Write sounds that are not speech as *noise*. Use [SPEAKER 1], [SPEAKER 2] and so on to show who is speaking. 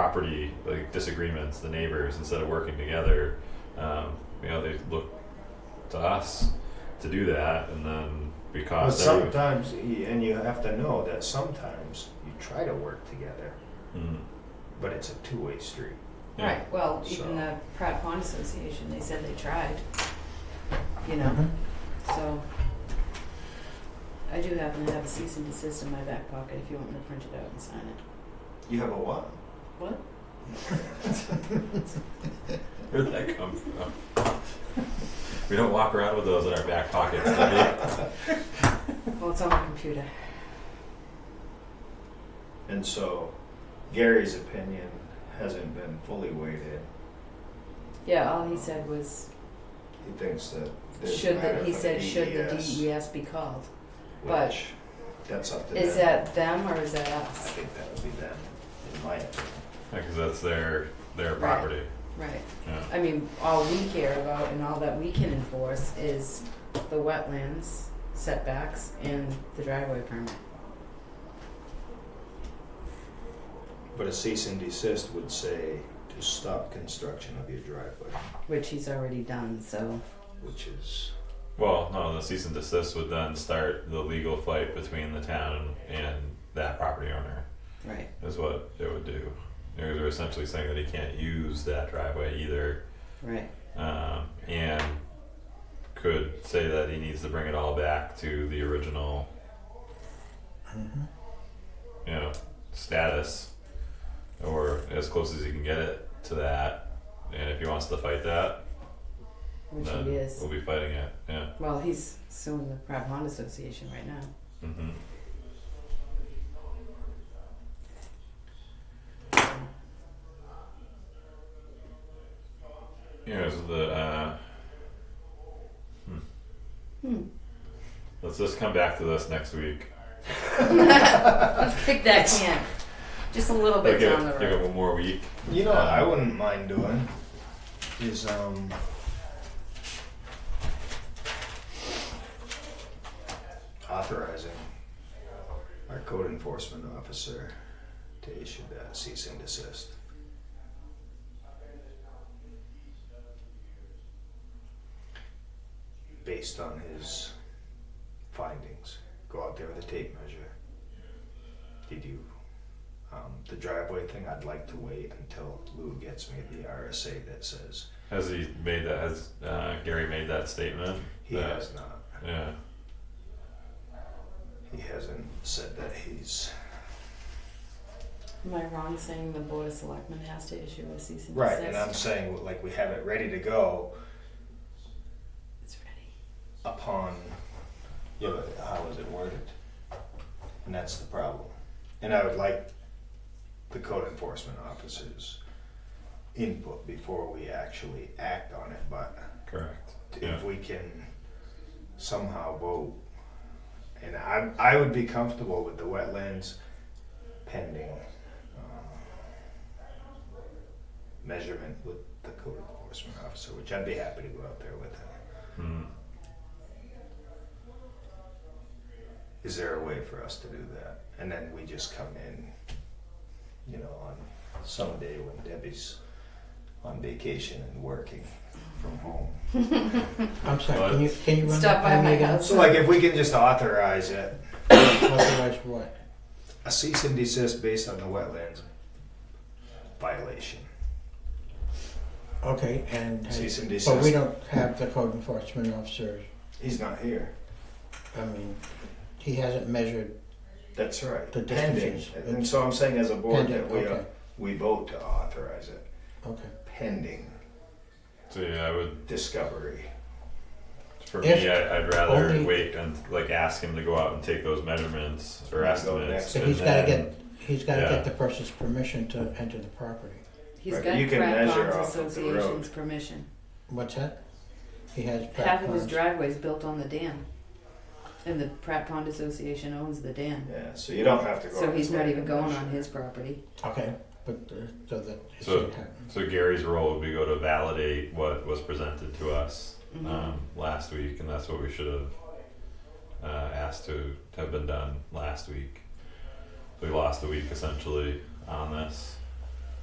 [SPEAKER 1] property like disagreements, the neighbors, instead of working together, um, you know, they look to us to do that, and then we
[SPEAKER 2] But
[SPEAKER 1] cost everyone.
[SPEAKER 2] sometimes, y- and you have to know that sometimes you try to work together,
[SPEAKER 1] Mm,
[SPEAKER 2] but it's a two-way street.
[SPEAKER 1] yeah.
[SPEAKER 3] Right, well,
[SPEAKER 2] So-
[SPEAKER 3] even the Pratt Pond Association, they said they tried, you know, so. I do happen to have a cease and desist in my back pocket if you want me to print it out and sign it.
[SPEAKER 2] You have a what?
[SPEAKER 3] What?
[SPEAKER 1] Where'd that come from? *laughs* we don't walk around with those in our back pockets. do we? *laughs*
[SPEAKER 3] Well, it's on the computer.
[SPEAKER 2] *laughs* And so Gary's opinion hasn't been fully weighted.
[SPEAKER 3] Yeah, all he said was,
[SPEAKER 2] He thinks that there's a
[SPEAKER 3] should,
[SPEAKER 2] matter
[SPEAKER 3] the he
[SPEAKER 2] for
[SPEAKER 3] said, should the
[SPEAKER 2] DES,
[SPEAKER 3] DES be called? but-
[SPEAKER 2] which That's up to them.
[SPEAKER 3] Is that them or is that
[SPEAKER 2] I
[SPEAKER 3] us?
[SPEAKER 2] think that would be them, in my opinion.
[SPEAKER 1] Yeah, 'cause that's their their
[SPEAKER 3] Right.
[SPEAKER 1] property.
[SPEAKER 3] Right,
[SPEAKER 1] Yeah.
[SPEAKER 3] I mean, all we care about and all that we can enforce is the wetlands setbacks and the driveway permit.
[SPEAKER 2] But a cease and desist would say to stop construction of your driveway,
[SPEAKER 3] Which he's already done, so.
[SPEAKER 2] which is,
[SPEAKER 1] Well, no, the cease and desist would then start the legal fight between the town and that property owner.
[SPEAKER 3] Right.
[SPEAKER 1] Is what it would do. Because they're essentially saying that he can't use that driveway either,
[SPEAKER 3] Right.
[SPEAKER 1] um, and could say that he needs to bring it all back to the original, you know, status, or as close as he can get it to that. And if he wants to fight that,
[SPEAKER 3] Which
[SPEAKER 1] then
[SPEAKER 3] he is.
[SPEAKER 1] we'll be fighting it. Yeah.
[SPEAKER 3] Well, he's suing the Pratt Pond Association right now.
[SPEAKER 1] Mm-hmm. Here's the uh,
[SPEAKER 3] Hmm.
[SPEAKER 1] let's just come back to this next week.
[SPEAKER 3] Let's kick that can. Just a little
[SPEAKER 1] Give
[SPEAKER 3] bit
[SPEAKER 1] it,
[SPEAKER 3] down the
[SPEAKER 1] give
[SPEAKER 3] road.
[SPEAKER 1] it one more week.
[SPEAKER 2] you know, what I wouldn't mind doing is, um, authorizing our code enforcement officer to issue that cease and desist. Based on his findings, go out there with a tape measure. Did you, um, the driveway thing, I'd like to wait until Lou gets me the RSA that says
[SPEAKER 1] Has he made that? Has uh, Gary made that statement?
[SPEAKER 2] he
[SPEAKER 1] that,
[SPEAKER 2] has not.
[SPEAKER 1] Yeah.
[SPEAKER 2] He hasn't said that he's.
[SPEAKER 3] Am I wrong saying the Board of Selectmen has to issue a cease and desist?
[SPEAKER 2] Right, and I'm saying, like, we have it ready to go,
[SPEAKER 3] It's ready.
[SPEAKER 2] upon yeah, but how is it worded? And that's the problem. And I would like the code enforcement officer's input before we actually act on it, but
[SPEAKER 1] Correct. Yeah.
[SPEAKER 2] if we can somehow vote. And I, I would be comfortable with the wetlands pending um, measurement with the code enforcement officer, which I'd be happy to go out there with him.
[SPEAKER 1] Mm.
[SPEAKER 2] is there a way for us to do that? And then we just come in, you know, on some day when Debbie's on vacation and working from home.
[SPEAKER 4] I'm sorry, can you, can you run
[SPEAKER 3] Stop
[SPEAKER 4] that
[SPEAKER 3] by
[SPEAKER 4] by me
[SPEAKER 3] my
[SPEAKER 4] again?
[SPEAKER 3] house.
[SPEAKER 2] So like if we can just authorize it,
[SPEAKER 4] Authorize what?
[SPEAKER 2] a cease and desist based on the wetlands violation.
[SPEAKER 4] Okay, and,
[SPEAKER 2] Cease and
[SPEAKER 4] but we
[SPEAKER 2] desist.
[SPEAKER 4] don't have the code enforcement officer,
[SPEAKER 2] He's not here.
[SPEAKER 4] I mean, he hasn't measured,
[SPEAKER 2] That's right.
[SPEAKER 4] The
[SPEAKER 2] Pending.
[SPEAKER 4] distances.
[SPEAKER 2] And so I'm saying as a board
[SPEAKER 4] pending,
[SPEAKER 2] that we, uh,
[SPEAKER 4] okay,
[SPEAKER 2] we vote to authorize it
[SPEAKER 4] okay.
[SPEAKER 2] pending
[SPEAKER 1] So yeah, I would
[SPEAKER 2] discovery.
[SPEAKER 1] For
[SPEAKER 4] If
[SPEAKER 1] me, I, I'd rather
[SPEAKER 4] only-
[SPEAKER 1] wait and like ask him to go out and take those measurements or
[SPEAKER 2] Go
[SPEAKER 1] estimates.
[SPEAKER 2] next.
[SPEAKER 4] So
[SPEAKER 1] and
[SPEAKER 4] he's gotta
[SPEAKER 1] then-
[SPEAKER 4] get, he's gotta
[SPEAKER 1] Yeah.
[SPEAKER 4] get the person's permission to enter the property.
[SPEAKER 3] He's
[SPEAKER 2] Right,
[SPEAKER 3] got
[SPEAKER 2] you can
[SPEAKER 3] Pratt
[SPEAKER 2] measure off
[SPEAKER 3] Ponds
[SPEAKER 2] of the road.
[SPEAKER 3] Association's permission.
[SPEAKER 4] What's that? He
[SPEAKER 3] Half
[SPEAKER 4] has
[SPEAKER 3] of his
[SPEAKER 4] platforms.
[SPEAKER 3] driveway's built on the dam. And the Pratt Pond Association owns the dam.
[SPEAKER 2] Yeah, so you don't have to go.
[SPEAKER 3] So
[SPEAKER 2] on
[SPEAKER 3] he's
[SPEAKER 2] the
[SPEAKER 3] not
[SPEAKER 2] site
[SPEAKER 3] even going on
[SPEAKER 2] measure.
[SPEAKER 3] his property.
[SPEAKER 4] Okay, but, uh, so that it
[SPEAKER 1] So-
[SPEAKER 4] shouldn't happen.
[SPEAKER 1] So Gary's role would be go to validate what was presented to us
[SPEAKER 4] Mm-hmm.
[SPEAKER 3] Mhm.
[SPEAKER 1] um, last week, and that's what we should have uh, asked to have been done last week. We lost a week essentially on this.